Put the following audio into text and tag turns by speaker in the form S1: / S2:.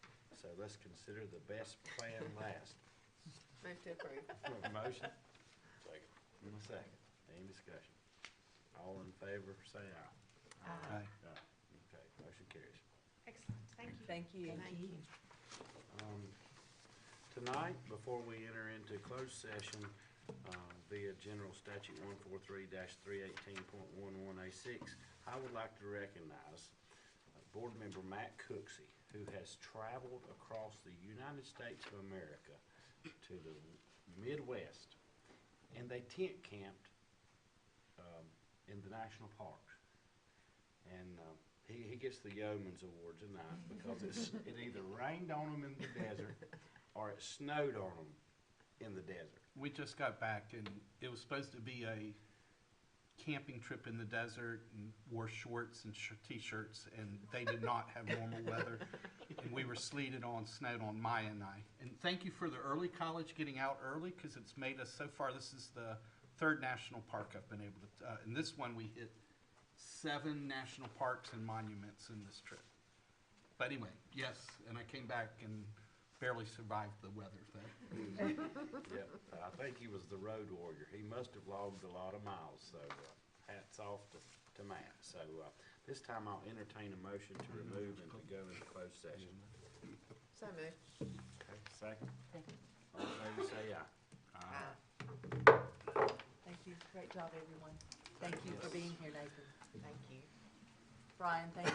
S1: uh, let's consider the best plan last.
S2: Move to approve.
S1: Do I have a motion? In a second. Any discussion? All in favor, say aye.
S2: Aye.
S1: Aye. Okay, motion carries.
S3: Excellent, thank you.
S4: Thank you.
S2: Thank you.
S1: Um, Tonight, before we enter into closed session uh, via General Statute 143-318.11A6, I would like to recognize uh, Board Member Matt Cooksey, who has traveled across the United States of America to the Midwest, and they tent camped um, in the national parks. And uh, he, he gets the Yeoman's Award tonight because it's, it either rained on him in the desert or it snowed on him in the desert.
S5: We just got back and it was supposed to be a camping trip in the desert and wore shorts and sh- t-shirts and they did not have normal weather. And we were sleeted on, snowed on, Maya and I. And thank you for the early college getting out early because it's made us so far, this is the third national park I've been able to, uh, and this one we hit seven national parks and monuments in this trip. But anyway, yes, and I came back and barely survived the weather thing.
S1: Yep, I think he was the road warrior. He must have logged a lot of miles, so uh, hats off to, to Matt. So uh, this time I'll entertain a motion to remove and to go into closed session.
S2: So moved.
S1: Okay, second? All in favor, say aye.
S2: Aye.
S4: Thank you. Great job, everyone. Thank you for being here, Nathan.
S2: Thank you.
S4: Brian, thank